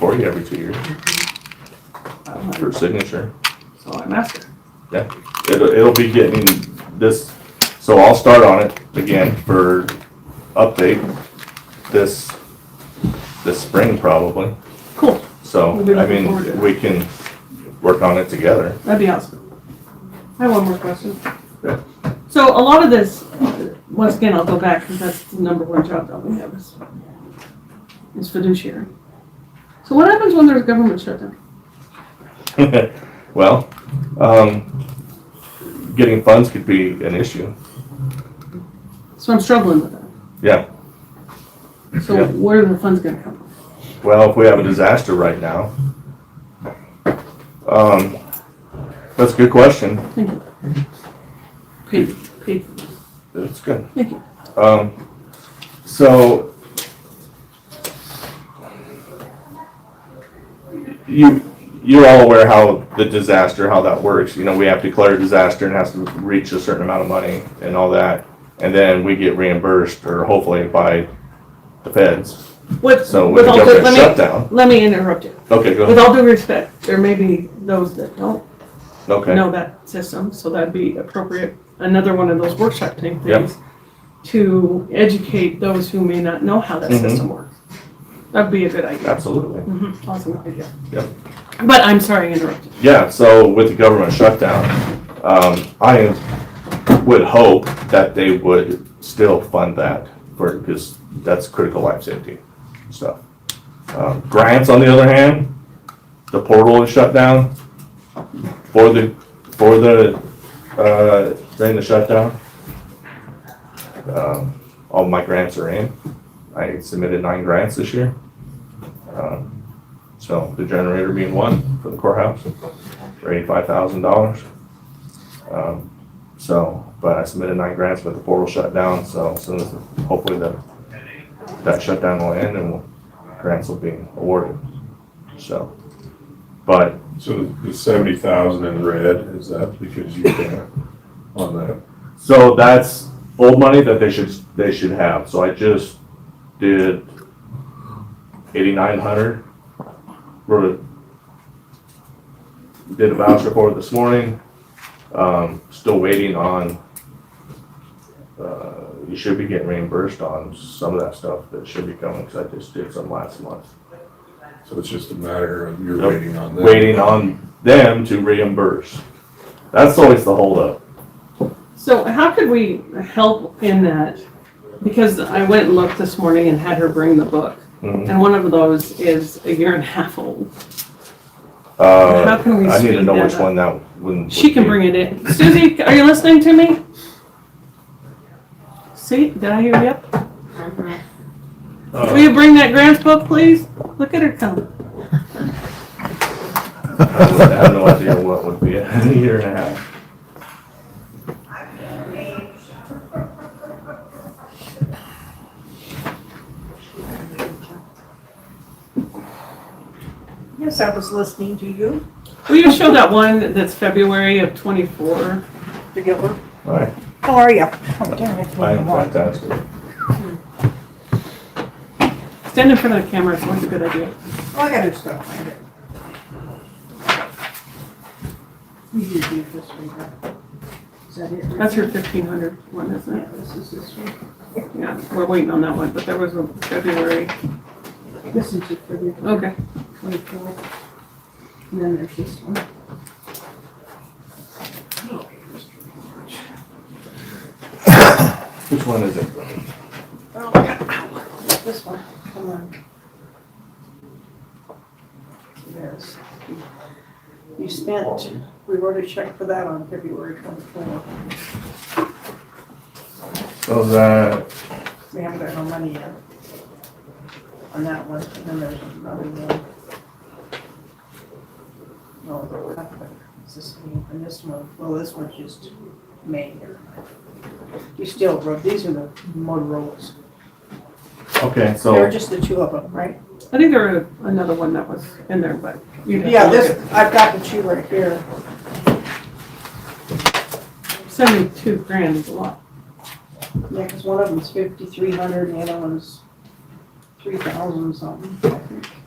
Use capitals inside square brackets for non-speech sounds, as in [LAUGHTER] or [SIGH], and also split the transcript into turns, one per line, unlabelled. Or you every two years
I'm
for
like,
signature.
So I'm after.
It'll, it'll be getting this, so I'll start on it again for update this, this spring probably.
Cool.
So,
We'll be
I
looking forward to
mean,
it.
we can work on it together. [LAUGHS]
That'd be awesome. I have one more question.
Yeah.
So a lot of this, once again, I'll go back because that's the number one job that we have is, is fiduciary. So what happens when there's government shutdown?
Well, um, getting funds could be an issue.
So I'm struggling with that.
Yeah.
So
Yeah.
where are the funds gonna come from?
Well, if we have a disaster right now. Um, that's a good question.
Thank you. Paid, paid.
That's good.
Thank you.
Um, so you you're all aware how the disaster how that works. You know, we have to declare a disaster and it has to reach a certain amount of money and all that, and then we get reimbursed or hopefully by the feds.
With,
So with
with
the
all due,
government
let me,
shutdown,
let me interrupt you.
okay, go
With
ahead.
all due respect, there may be those that don't
Okay,
know that system, so that'd be appropriate, another one of those workshop type
Yep.
things to educate those who may not know how that
Mhm.
system works. That'd be a good idea.
absolutely.
Mhm, Awesome idea.
Yep.
But I'm sorry I interrupted.
Yeah, so with the government shutdown, um, I would hope that they would still fund that for, because that's critical life safety stuff. Um, Grants, on the other hand, the portal is shut down for the, for the, uh, during the shutdown. Um, All my grants are in. I submitted nine grants this year. Um, So the generator being one for the courthouse for eighty-five thousand dollars. Um, So, but I submitted nine grants, but the portal shut down, so as soon as, hopefully the, that shutdown will end and we'll- grants will be awarded, so. But,
So the seventy thousand in red, is that because you can't on that?
so that's old money that they should, they should have, so I just did eighty-nine hundred. Wrote, a- did a voucher for it this morning, um, still waiting on uh, you should be getting reimbursed on some of that stuff that should be coming, because I just did some last month.
So it's just a matter of you're
Yep.
waiting on that?
Waiting on them to reimburse. That's always the holdup.
So how could we help in that? Because I went and looked this morning and had her bring the book,
Mhm.
and one of those is a year and a half old. How
Uh,
can
I
we
need to
speed
know
that
which
up?
one that, when.
She can bring it in. Susie, are you listening to me? See, did I hear you? Will
Uh,
you bring that grants book, please? Look at her come.
I have no idea what would be a year and a half.
Yes, I was listening to you
Will you show that one that's February of twenty-four?
together.
All right,
How are you? Oh,
I am fantastic.
Stand in front of the camera, it's always a good idea.
I got it stuff. I got it. We did do this one, right? Is that it?
That's her fifteen hundred one, isn't
Yeah,
it?
this is this one.
Yeah, we're waiting on that one, but there was a February.
This is it for the
Okay.
twenty-four. And then there's this one.
Which one is it?
Oh, I got ow, This one, come on. There's. You spent, we wrote a check for that on February twenty-four.
So that,
We haven't got no money yet on that one, and then there's another one. No, that one, it's this one, and this one, well, this one's just May here. You still wrote, these are the Motorola's,
okay,
there
so,
are just the two of them, right?
I think there was another one that was in there, but you
Yeah, this, I've got the two right here,
Seventy-two grand is a lot.
yeah, because one of them's fifty-three hundred, and the other one's three thousand something, I think.